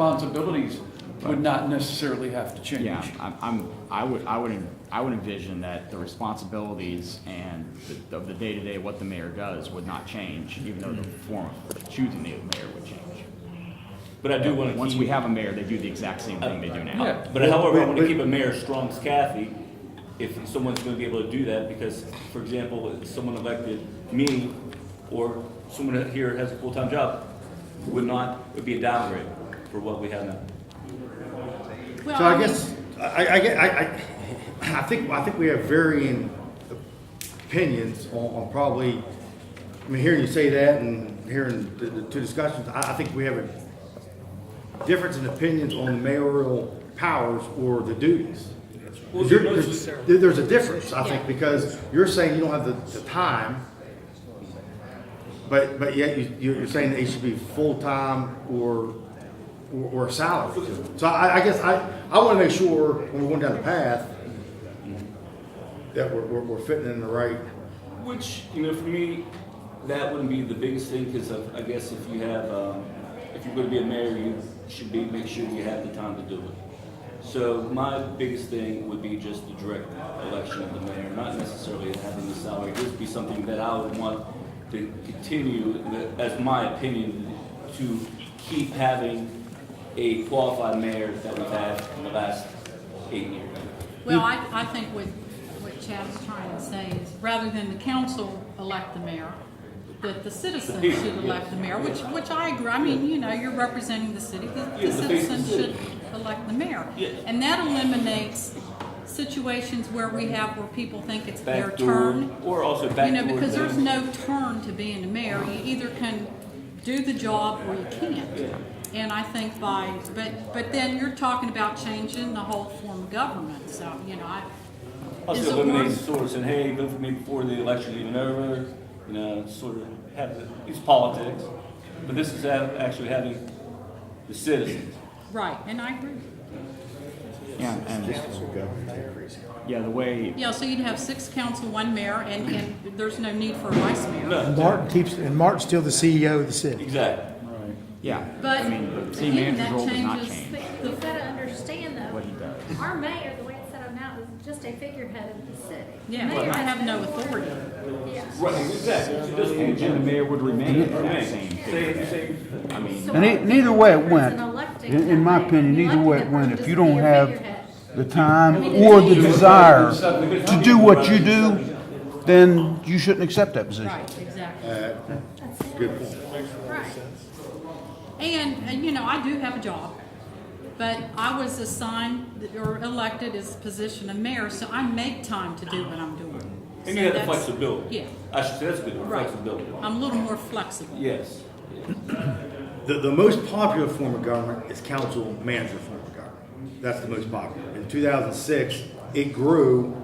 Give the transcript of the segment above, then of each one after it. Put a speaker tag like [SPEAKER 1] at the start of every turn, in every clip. [SPEAKER 1] responsibilities would not necessarily have to change.
[SPEAKER 2] Yeah, I'm- I'm, I would, I would, I would envision that the responsibilities and the- of the day-to-day, what the mayor does would not change, even though the
[SPEAKER 1] Mm-hmm.
[SPEAKER 2] form of choosing the mayor would change.
[SPEAKER 3] But I do want to
[SPEAKER 2] Once
[SPEAKER 3] keep.
[SPEAKER 2] we have a mayor, they do the exact same thing they do now.
[SPEAKER 1] Yeah.
[SPEAKER 3] But however, I want to keep a mayor strong as Kathy, if someone's going to be able to do that, because, for example, if someone elected me, or someone here has a full-time job, would not, it would be a downgrade for what we have now.
[SPEAKER 4] So I guess, I, I, I, I- I think, I think we have varying opinions on, on probably, I mean, hearing you say that and hearing the, the two discussions, I, I think we have a difference in opinions on mayoral powers or the duties. There- There's there- there's a difference, I think, because you're saying you don't have the, the time, but, but yet you, you're saying they should be full-time or or, or a salary. So I, I guess I, I want to make sure when we're going down the path that we're, we're, we're fitting in the right.
[SPEAKER 3] Which, you know, for me, that wouldn't be the biggest thing, because I guess if you have, um, if you're going to be a mayor, you should be, make sure you have the time to do it. So my biggest thing would be just the direct election of the mayor, not necessarily having the salary. This would be something that I would want to continue, as my opinion, to keep having a qualified mayor that we've had in the last eight years.
[SPEAKER 5] Well, I, I think what, what Chad's trying to say is, rather than the council elect the mayor, that the citizens
[SPEAKER 3] people,
[SPEAKER 5] should elect the mayor, which, which I agree, I mean, you know, you're representing the city, the
[SPEAKER 3] Yeah,
[SPEAKER 5] the
[SPEAKER 3] the face of the
[SPEAKER 5] citizens
[SPEAKER 3] city.
[SPEAKER 5] should elect the mayor.
[SPEAKER 3] Yeah.
[SPEAKER 5] And that eliminates situations where we have, where people think it's their
[SPEAKER 3] Backdoor,
[SPEAKER 5] turn.
[SPEAKER 3] or also backdoor.
[SPEAKER 5] You know, because there's
[SPEAKER 3] things.
[SPEAKER 5] no turn to being a mayor, you either can do the job or you can't. And I think by, but, but then you're talking about changing the whole form of government, so, you know, I. is it
[SPEAKER 3] Also eliminates
[SPEAKER 5] worth-
[SPEAKER 3] sort of saying, hey, vote for me before the election's even over, you know, sort of have, the- it's politics. But this is ha- actually having the citizens.
[SPEAKER 5] Right, and I agree.
[SPEAKER 2] Yeah, and, yeah, the way,
[SPEAKER 5] Yeah, so you'd have six council, one mayor, and, and there's no need for a vice mayor.
[SPEAKER 3] No,
[SPEAKER 6] Martin keeps, and Martin's still the CEO of the city.
[SPEAKER 3] exactly.
[SPEAKER 2] yeah,
[SPEAKER 5] But
[SPEAKER 2] I mean, the city manager's
[SPEAKER 5] again, that
[SPEAKER 2] role does not
[SPEAKER 5] changes.
[SPEAKER 2] change
[SPEAKER 7] But you've got to understand
[SPEAKER 2] what he
[SPEAKER 7] though,
[SPEAKER 2] does.
[SPEAKER 7] our mayor, the way it's set up now, is just a figurehead of the city.
[SPEAKER 5] Yeah,
[SPEAKER 7] Mayor
[SPEAKER 5] I have
[SPEAKER 7] has
[SPEAKER 5] no authority.
[SPEAKER 7] Yeah.
[SPEAKER 3] Right, exactly. It doesn't
[SPEAKER 2] And the
[SPEAKER 3] legitimate.
[SPEAKER 2] mayor would remain that same
[SPEAKER 3] Same, same.
[SPEAKER 2] I mean,
[SPEAKER 7] So
[SPEAKER 8] And
[SPEAKER 7] our
[SPEAKER 8] it- neither way it
[SPEAKER 7] mayor's
[SPEAKER 8] went,
[SPEAKER 7] an elected
[SPEAKER 8] in, in my
[SPEAKER 7] guy.
[SPEAKER 8] opinion,
[SPEAKER 7] You
[SPEAKER 8] either way
[SPEAKER 7] elected
[SPEAKER 8] it went, if
[SPEAKER 7] person
[SPEAKER 8] you
[SPEAKER 7] to be
[SPEAKER 8] don't
[SPEAKER 7] a
[SPEAKER 8] have
[SPEAKER 7] figurehead.
[SPEAKER 8] the time or the desire to do what you do, then you shouldn't accept that position.
[SPEAKER 5] Right, exactly.
[SPEAKER 4] Good point.
[SPEAKER 7] Right.
[SPEAKER 5] And, and, you know, I do have a job, but I was assigned or elected as position of mayor, so I make time to do what I'm doing.
[SPEAKER 3] And
[SPEAKER 5] So
[SPEAKER 3] you have the
[SPEAKER 5] that's-
[SPEAKER 3] flexibility.
[SPEAKER 5] Yeah,
[SPEAKER 3] I should say that's a good, word,
[SPEAKER 5] right.
[SPEAKER 3] flexibility.
[SPEAKER 5] I'm a little more flexible.
[SPEAKER 3] Yes.
[SPEAKER 4] The, the most popular form of government is council manager form of government. That's the most popular. In 2006, it grew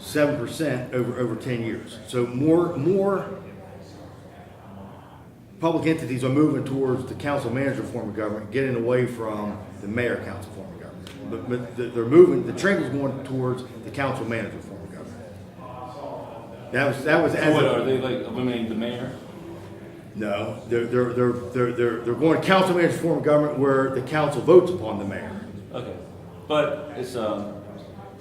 [SPEAKER 4] 7% over, over 10 years. So more, more public entities are moving towards the council manager form of government, getting away from the mayor council form of government. But, but the- they're moving, the trend is going towards the council manager form of government. That was, that was.
[SPEAKER 3] So
[SPEAKER 4] as
[SPEAKER 3] what,
[SPEAKER 4] of-
[SPEAKER 3] are they like eliminating the mayor?
[SPEAKER 4] no, they're, they're, they're, they're, they're, they're going council manager form of government where the council votes upon the mayor.
[SPEAKER 3] Okay. But it's, um,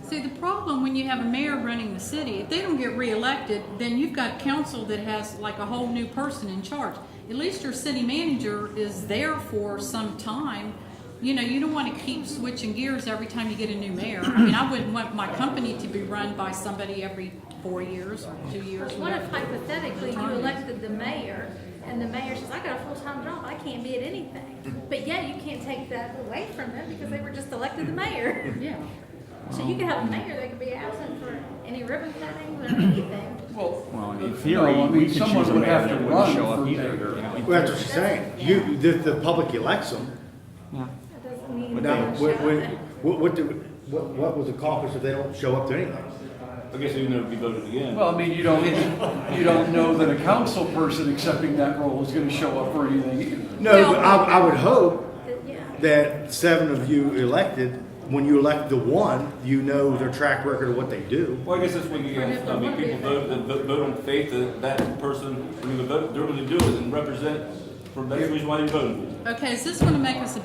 [SPEAKER 5] See, the problem when you have a mayor running the city, if they don't get reelected, then you've got council that has like a whole new person in charge. At least your city manager is there for some time. You know, you don't want to keep switching gears every time you get a new mayor. I mean, I wouldn't want my company to be run by somebody every four years or two years.
[SPEAKER 7] But what if
[SPEAKER 5] whatever.
[SPEAKER 7] hypothetically you elected the mayor and the mayor says, I got a full-time job, I can't be at anything. But yet you can't take that away from them because they were just elected the mayor.
[SPEAKER 5] Yeah.
[SPEAKER 7] So you could have a mayor that could be absent for any ribbon cutting or anything.
[SPEAKER 2] well,
[SPEAKER 1] Well,
[SPEAKER 2] in
[SPEAKER 1] no, I
[SPEAKER 2] theory,
[SPEAKER 1] mean,
[SPEAKER 2] we could choose
[SPEAKER 1] someone
[SPEAKER 2] a
[SPEAKER 1] would
[SPEAKER 2] mayor
[SPEAKER 1] have to
[SPEAKER 2] that
[SPEAKER 1] run
[SPEAKER 2] wouldn't show
[SPEAKER 1] for
[SPEAKER 2] up either.
[SPEAKER 1] mayor.
[SPEAKER 2] you know, in
[SPEAKER 4] Well, that's what she's saying. You, the, the public elects them.
[SPEAKER 7] That doesn't mean.
[SPEAKER 4] Now,
[SPEAKER 7] they
[SPEAKER 4] what,
[SPEAKER 7] shut
[SPEAKER 4] what,
[SPEAKER 7] it.
[SPEAKER 4] what, what, do- what, what was accomplished if they don't show up to anything?
[SPEAKER 3] I guess they'd never be voted again.
[SPEAKER 1] Well, I mean, you don't, you don't know that a council person accepting that role is gonna show up for anything either.
[SPEAKER 4] No, but I, I would hope
[SPEAKER 7] That- Yeah.
[SPEAKER 4] that seven of you elected, when you elect the one, you know their track record of what they do.
[SPEAKER 3] Well, I guess that's when you, have- I mean, people vote, they vote vote on faith that that person, when they vote, they're gonna do it and represent, for that's the reason why they're voting.
[SPEAKER 5] Okay, is this going to make us a